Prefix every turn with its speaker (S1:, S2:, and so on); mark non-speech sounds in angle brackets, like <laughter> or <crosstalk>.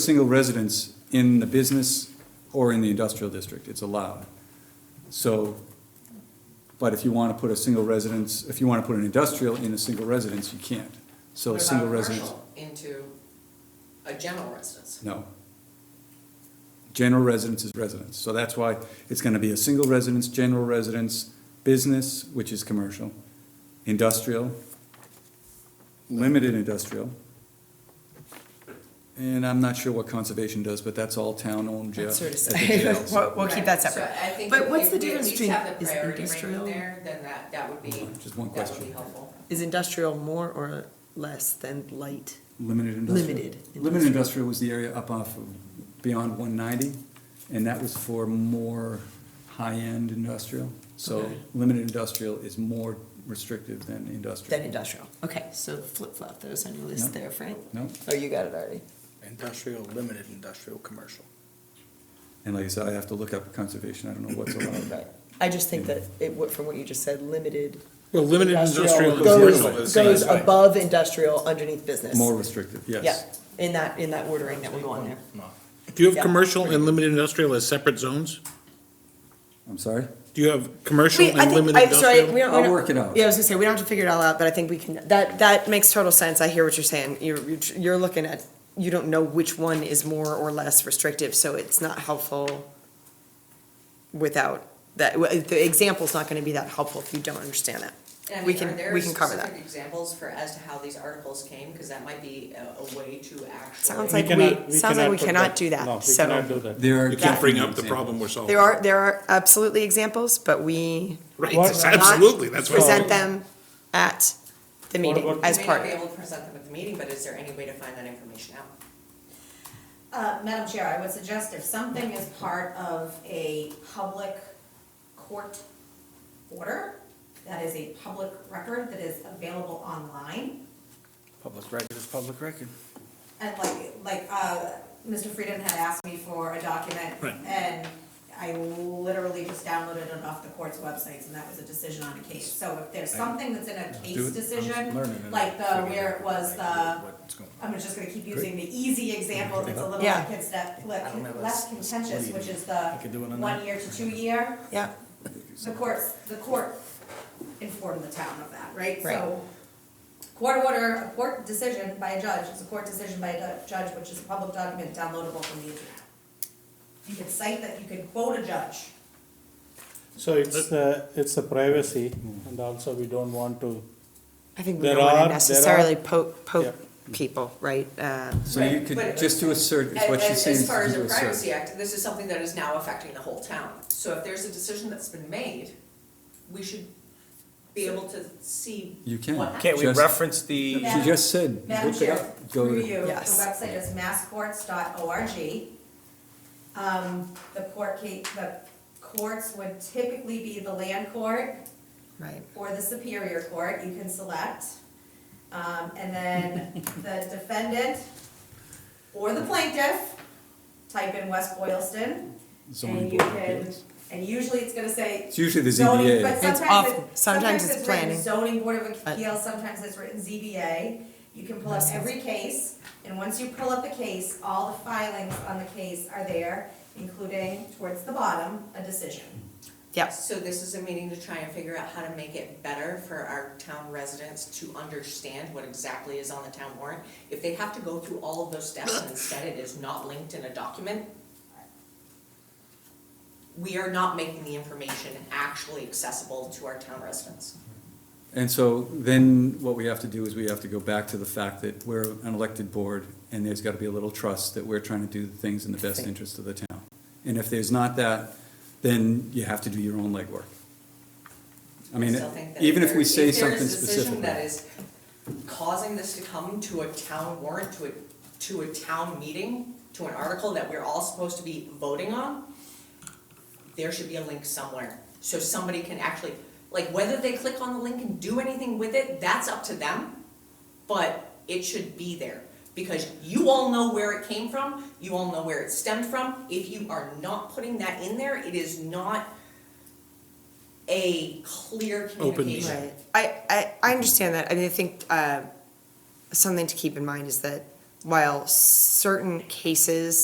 S1: single residence in the business or in the industrial district, it's allowed. So, but if you wanna put a single residence, if you wanna put an industrial in a single residence, you can't. So a
S2: What about
S1: single residence,
S2: commercial Into a general residence.
S1: no. General residence is residence, so that's why it's gonna be a single residence, general residence, business, which is commercial, industrial, limited industrial. And I'm not sure what conservation does, but that's all town-owned jail.
S3: That's sort of
S1: at the
S3: say- <laughs>
S1: jails.
S3: We'll, we'll keep that
S2: Right, so
S3: separate.
S2: I think
S3: But
S2: if-
S3: what's
S2: if we
S3: the
S2: at
S3: difference
S2: least
S3: between-
S2: have the
S3: is
S2: priority ranking
S3: industrial-
S2: there, Then that, that would be,
S1: Just one
S2: that would be
S1: question.
S2: helpful.
S3: Is industrial more or less than light?
S1: Limited industrial.
S3: Limited
S1: Limited
S3: industrial.
S1: industrial was the area up off of beyond one ninety, and that was for more high-end industrial. So
S3: Okay.
S1: limited industrial is more restrictive than industrial.
S3: Than industrial. Okay, so flip flop those on your
S1: No.
S3: list there, Frank.
S1: No,
S3: Oh, you got it already.
S4: Industrial, limited industrial, commercial.
S1: and like I said, I have to look up conservation, I don't know
S3: <coughs>
S1: what's allowed.
S3: Right. I just think that it, wa- from what you just said, limited.
S4: Well, limited industrial and commercial
S3: Goes,
S4: is the
S3: goes
S4: same as-
S3: above industrial underneath business.
S1: More restrictive,
S3: Yeah,
S1: yes.
S3: in that, in that ordering that we're going there.
S5: Do you
S3: Yeah.
S5: have commercial and limited industrial as separate zones?
S1: I'm sorry?
S5: Do you have commercial
S3: We, I
S5: and
S3: think,
S5: limited
S3: I'm sorry, we
S5: industrial?
S3: don't. we
S1: I'll
S3: don't-
S1: work it out.
S3: Yeah, I was gonna say, we don't have to figure it all out, but I think we can, that, that makes total sense, I hear what you're saying, you're, you're tr- you're looking at, you don't know which one is more or less restrictive, so it's not helpful without, that, w- the example's not gonna be that helpful if you don't understand that.
S2: And I
S3: We
S2: mean,
S3: can-
S2: are there
S3: we can cover
S2: specific
S3: that.
S2: Examples for, as to how these articles came, because that might be a, a way to actually.
S3: Sounds like we, sounds like we cannot do that, so.
S1: There are.
S5: You can't bring up the
S1: definitely
S5: problem we're solving.
S3: There are, there are absolutely examples, but we
S5: Right, <laughs>
S3: What?
S5: it's absolutely, that's what.
S3: present them at the meeting
S6: about-
S3: as
S2: You
S3: part
S2: may not
S3: of
S2: be
S3: it.
S2: able to present them at the meeting, but is there any way to find that information out?
S6: Uh, Madam Chair, I would suggest if something is part of a public court order, that is a public record that is available online,
S4: Public record is public record.
S6: and like, like, uh, Mr. Frieden had asked me for a document,
S5: Right.
S6: and I literally just downloaded it off the court's websites, and that was a decision on a case. So if there's something that's in a
S1: Do it.
S6: case
S1: I'm
S6: decision,
S1: learning and
S6: like the,
S4: figuring
S6: where it was the,
S4: What's going on?
S6: I'm just gonna keep using the easy example, that's a little
S3: Yeah.
S6: less conste-
S4: I don't have a
S6: less
S4: s-
S6: contentious,
S4: lead.
S6: which is
S4: I could
S6: the
S4: do it on
S6: one
S4: that.
S6: year to two year.
S3: Yeah,
S6: The courts, the court informed the town of that, right?
S3: Right.
S6: So Court order, a court decision by a judge, is a court decision by a du- judge, which is a public document downloadable from the internet. You could cite that, you could quote a judge.
S7: So it's, uh, it's a privacy, and also we don't want to,
S3: I think we
S7: There
S3: don't want
S7: are-
S3: to
S7: there are-
S3: necessarily poke,
S7: Yeah.
S3: poke people, right? Uh,
S1: So you could,
S2: But-
S1: just to assert, is
S2: And-
S1: what
S2: and
S1: she's saying, is
S2: As far
S1: to
S2: as the
S1: do assert.
S2: Privacy Act, this is something that is now affecting the whole town. So if there's a decision that's been made, we should be able to see.
S1: You can.
S2: what happened.
S1: Can't we Just-
S4: reference the?
S1: She just said,
S6: Madam
S1: look it
S6: Chair,
S1: up, go
S6: through
S1: to,
S6: you, the
S3: Yes.
S6: website is masscourts.org. Um, the court case, the courts would typically be the land court
S3: Right.
S6: or the superior court, you can select. Um, and then the defendant or the plaintiff, type in West Boylston.
S1: zoning
S6: And you
S1: board of
S6: can,
S1: appeals.
S6: and usually it's gonna say
S1: It's usually the
S6: zoning,
S1: ZBA.
S6: but
S3: It's
S6: sometimes
S3: off-
S6: it-
S3: sometimes it's
S6: written
S3: planning.
S6: Zoning Board of
S3: Uh,
S6: Appeals, sometimes it's written ZBA. You can pull up
S3: Makes sense.
S6: every case, and once you pull up the case, all the filings on the case are there, including towards the bottom, a decision.
S3: Yep,
S2: So this is a meeting to try and figure out how to make it better for our town residents to understand what exactly is on the town warrant. If they have to go through all of those steps and instead it is not linked in a document, we are not making the information actually accessible to our town residents.
S1: And so then what we have to do is we have to go back to the fact that we're an elected board and there's gotta be a little trust that we're trying to do the things in the best interest of the town. And if there's not that, then you have to do your own legwork. I mean,
S2: still think that
S1: even if
S2: there-
S1: we say
S2: If
S1: something
S2: there's a decision that
S1: specific.
S2: is causing this to come to a town warrant, to a, to a town meeting, to an article that we're all supposed to be voting on, there should be a link somewhere, so somebody can actually, like, whether they click on the link and do anything with it, that's up to them, but it should be there, because you all know where it came from, you all know where it stemmed from, if you are not putting that in there, it is not a clear
S5: Open
S2: communication.
S3: right. I, I, I understand that. I mean, I think, uh, something to keep in mind is that while certain cases